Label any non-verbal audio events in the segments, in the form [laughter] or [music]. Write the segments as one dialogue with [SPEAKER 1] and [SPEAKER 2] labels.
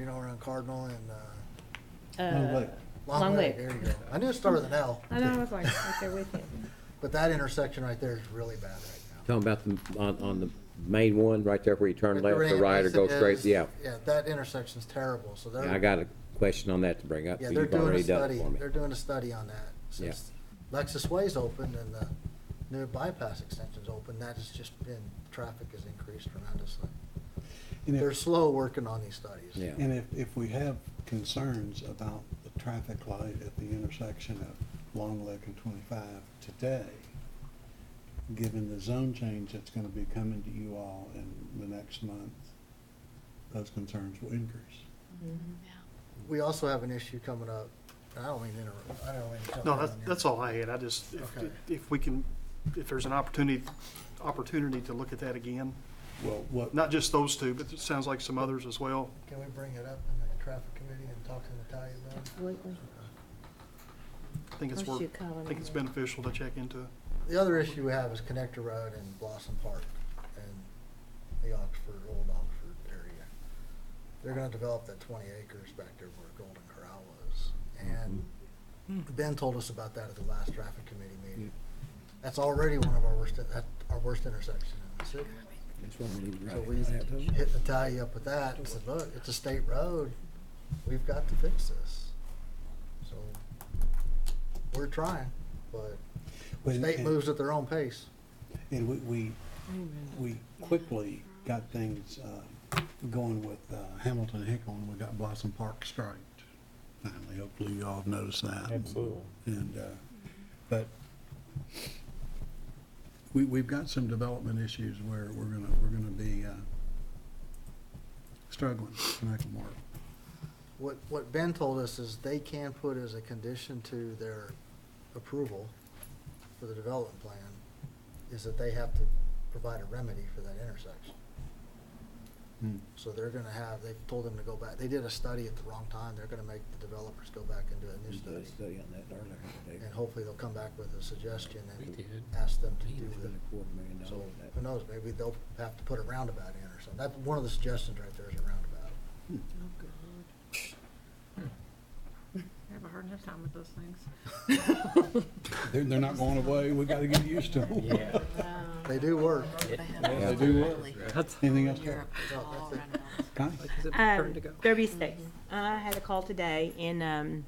[SPEAKER 1] you know, around Cardinal and, uh,
[SPEAKER 2] Long
[SPEAKER 3] Uh,
[SPEAKER 2] Lake.
[SPEAKER 1] Lake.
[SPEAKER 3] Long Lake.
[SPEAKER 1] There you go. I knew it started with an L.
[SPEAKER 4] I know, I was like, right there with you.
[SPEAKER 5] [laughs]
[SPEAKER 1] But that intersection right there is really bad right now.
[SPEAKER 6] Talking about the, on, on the main one, right there where you turn
[SPEAKER 1] With
[SPEAKER 6] left or
[SPEAKER 1] ramp
[SPEAKER 6] right or
[SPEAKER 1] exit
[SPEAKER 6] go
[SPEAKER 1] is-
[SPEAKER 6] straight, yeah.
[SPEAKER 1] Yeah, that intersection's terrible, so
[SPEAKER 6] Yeah, I
[SPEAKER 1] they're,
[SPEAKER 6] got a question on that to bring up,
[SPEAKER 1] yeah,
[SPEAKER 6] so
[SPEAKER 1] they're
[SPEAKER 6] you've
[SPEAKER 1] doing a
[SPEAKER 6] already done it
[SPEAKER 1] study,
[SPEAKER 6] for me.
[SPEAKER 1] they're doing a study on that.
[SPEAKER 6] Yeah.
[SPEAKER 1] Since Lexus Way's opened and the new bypass extension's open, that has just been, traffic has increased tremendously.
[SPEAKER 2] And if-
[SPEAKER 1] They're slow working on these studies.
[SPEAKER 6] Yeah.
[SPEAKER 2] And if, if we have concerns about the traffic light at the intersection of Long Lake and twenty-five today, given the zone change that's gonna be coming to you all in the next month, those concerns will increase.
[SPEAKER 1] We also have an issue coming up, and I don't mean to interrupt, I don't mean to. jump
[SPEAKER 7] No,
[SPEAKER 1] in
[SPEAKER 7] that's,
[SPEAKER 1] on you.
[SPEAKER 7] that's all I had. I just, if,
[SPEAKER 1] Okay.
[SPEAKER 7] if we can, if there's an opportunity, opportunity to look at that again,
[SPEAKER 2] Well, what,
[SPEAKER 7] not just those two, but it sounds like some others as well.
[SPEAKER 1] Can we bring it up in the traffic committee and talk to Natalia about it?
[SPEAKER 3] Absolutely.
[SPEAKER 7] I think it's
[SPEAKER 3] Why don't
[SPEAKER 7] worth,
[SPEAKER 3] you call
[SPEAKER 7] I
[SPEAKER 3] him
[SPEAKER 7] think it's
[SPEAKER 3] and then-
[SPEAKER 7] beneficial to check into.
[SPEAKER 1] The other issue we have is Connector Road and Blossom Park and the Oxford, Old Oxford area. They're gonna develop that twenty acres back there where Golden Corral was. And Ben told us about that at the last traffic committee meeting. That's already one of our worst, that, our worst intersection in the city.
[SPEAKER 6] That's what we need to
[SPEAKER 1] So
[SPEAKER 6] write
[SPEAKER 1] we
[SPEAKER 6] down.
[SPEAKER 1] hit Natalia up with that and said, look, it's a state road. We've got to fix this. So we're trying, but the
[SPEAKER 2] and-
[SPEAKER 1] state
[SPEAKER 2] and-
[SPEAKER 1] moves at their own pace.
[SPEAKER 2] and we, we, we quickly got things, uh, going with, uh, Hamilton Hickle and we got Blossom Park striped. Finally, hopefully you all have noticed that.
[SPEAKER 8] Absolutely.
[SPEAKER 2] And, uh, but we, we've got some development issues where we're gonna, we're gonna be, uh, struggling to make them work.
[SPEAKER 1] What, what Ben told us is they can put as a condition to their approval for the development plan is that they have to provide a remedy for that intersection. So they're gonna have, they've told them to go back, they did a study at the wrong time, they're gonna make the developers go back and do a new study.
[SPEAKER 6] Study on that earlier today.
[SPEAKER 1] And hopefully they'll come back with a suggestion
[SPEAKER 8] We
[SPEAKER 1] and
[SPEAKER 8] did.
[SPEAKER 1] ask them to
[SPEAKER 6] Man,
[SPEAKER 1] do
[SPEAKER 6] it's been
[SPEAKER 1] it.
[SPEAKER 6] a quarter million dollars
[SPEAKER 1] So,
[SPEAKER 6] that-
[SPEAKER 1] who knows, maybe they'll have to put a roundabout in or something. That's one of the suggestions right there is a roundabout.
[SPEAKER 4] I have a hard enough time with those things.
[SPEAKER 2] They're, they're not going away, we gotta get used to them.
[SPEAKER 8] Yeah.
[SPEAKER 3] [laughs]
[SPEAKER 1] They do work.
[SPEAKER 6] Yeah.
[SPEAKER 2] Anything else, Carol?
[SPEAKER 1] No, that's it.
[SPEAKER 2] Connie?
[SPEAKER 3] Um, Derby Estates. I had a call today and, um,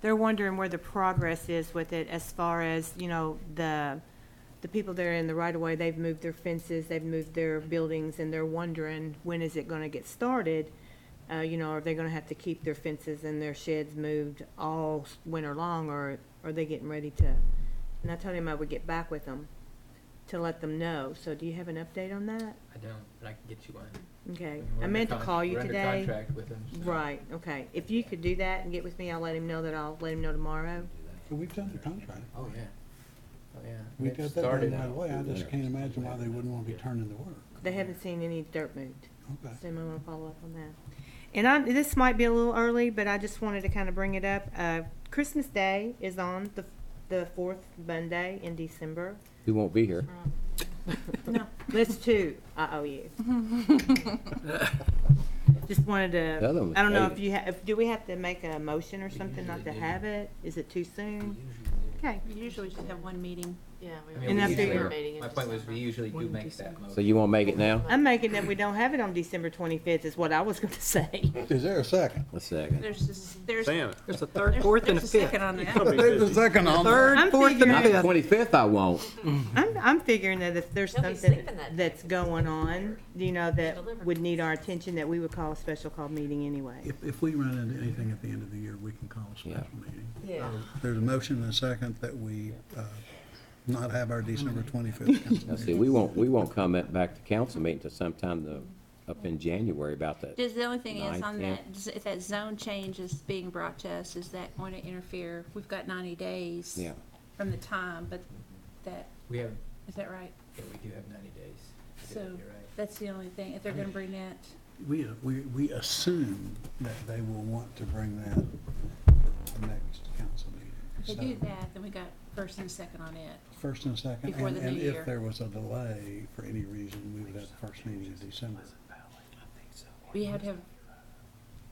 [SPEAKER 3] they're wondering where the progress is with it as far as, you know, the, the people that are in the right of way, they've moved their fences, they've moved their buildings and they're wondering, when is it gonna get started? Uh, you know, are they gonna have to keep their fences and their sheds moved all s- winter long or are they getting ready to? And I told him I would get back with them to let them know. So do you have an update on that?
[SPEAKER 8] I don't, but I can get you one.
[SPEAKER 3] Okay,
[SPEAKER 8] We're
[SPEAKER 3] I
[SPEAKER 8] under
[SPEAKER 3] meant to
[SPEAKER 8] con-
[SPEAKER 3] call you
[SPEAKER 8] we're under
[SPEAKER 3] today.
[SPEAKER 8] contract with them, so-
[SPEAKER 3] Right, okay. If you could do that and get with me, I'll let him know that I'll let him know tomorrow.
[SPEAKER 2] We've done the contract.
[SPEAKER 8] Oh, yeah. Oh, yeah.
[SPEAKER 2] We
[SPEAKER 8] They've
[SPEAKER 2] got that done
[SPEAKER 8] started
[SPEAKER 2] right
[SPEAKER 8] now.
[SPEAKER 2] away, I just can't imagine why they wouldn't wanna be
[SPEAKER 8] Yeah.
[SPEAKER 2] turning the work.
[SPEAKER 3] They haven't seen any dirt moved,
[SPEAKER 2] Okay.
[SPEAKER 3] so I want to follow up on that. And I, this might be a little early, but I just wanted to kind of bring it up. Uh, Christmas Day is on the, the fourth Monday in December.
[SPEAKER 6] We won't be here.
[SPEAKER 3] No, that's two. I
[SPEAKER 6] [laughs]
[SPEAKER 3] owe you. Just wanted to,
[SPEAKER 6] The other one was
[SPEAKER 3] I don't know
[SPEAKER 6] late.
[SPEAKER 3] if you, ha- if, do we have to make a motion or something not to have it? Is it too soon? Okay.
[SPEAKER 5] You Usually just have one meeting. Yeah.
[SPEAKER 8] I mean,
[SPEAKER 3] And
[SPEAKER 8] we
[SPEAKER 3] I
[SPEAKER 8] usually-
[SPEAKER 3] figure-
[SPEAKER 8] My point was, we usually do make that motion.
[SPEAKER 6] So you won't make it now?
[SPEAKER 3] I'm making that we don't have it on December twenty-fifth is what I was gonna [laughs] say.
[SPEAKER 2] Is there a second?
[SPEAKER 6] A second.
[SPEAKER 5] There's just, there's.
[SPEAKER 8] Sam.
[SPEAKER 5] There's a third, fourth, and a fifth. There's a second on that.
[SPEAKER 2] There's a second on that.
[SPEAKER 3] I'm figuring,
[SPEAKER 6] Twenty-fifth I won't.
[SPEAKER 3] I'm, I'm figuring that if there's
[SPEAKER 5] They'll be
[SPEAKER 3] something
[SPEAKER 5] sleeping that
[SPEAKER 3] that's going on, you know, that
[SPEAKER 5] Delivered.
[SPEAKER 3] would need our attention, that we would call a special call meeting anyway.
[SPEAKER 2] If, if we run into anything at the end of the year, we can call a special
[SPEAKER 6] Yeah.
[SPEAKER 2] meeting. Um,
[SPEAKER 5] Yeah.
[SPEAKER 2] There's a motion and a second that we uh, not have our December
[SPEAKER 5] [laughs]
[SPEAKER 2] 25th council
[SPEAKER 6] Now, see,
[SPEAKER 2] meeting.
[SPEAKER 6] we won't, we won't come at- back to council meeting until sometime the, up in January about that.
[SPEAKER 5] Just the only thing is
[SPEAKER 6] Ninth,
[SPEAKER 5] on
[SPEAKER 6] tenth.
[SPEAKER 5] that, if that zone change is being brought to us, is that going to interfere? We've got ninety days.
[SPEAKER 6] Yeah.
[SPEAKER 5] From the time, but that,
[SPEAKER 8] We have,
[SPEAKER 5] is that right?
[SPEAKER 8] yeah, we do have ninety days.
[SPEAKER 5] So
[SPEAKER 8] Yeah, You're right.
[SPEAKER 5] that's the only thing, if they're gonna bring that.
[SPEAKER 2] We, uh, we, we assume that they will want to bring that to the next council meeting.
[SPEAKER 5] If they
[SPEAKER 2] So,
[SPEAKER 5] do that, then we got first and second on it.
[SPEAKER 2] First and second,
[SPEAKER 5] Before
[SPEAKER 2] and
[SPEAKER 5] the new
[SPEAKER 2] and if
[SPEAKER 5] year.
[SPEAKER 2] there was a delay for any reason, we would have the first meeting in December.
[SPEAKER 5] We have to have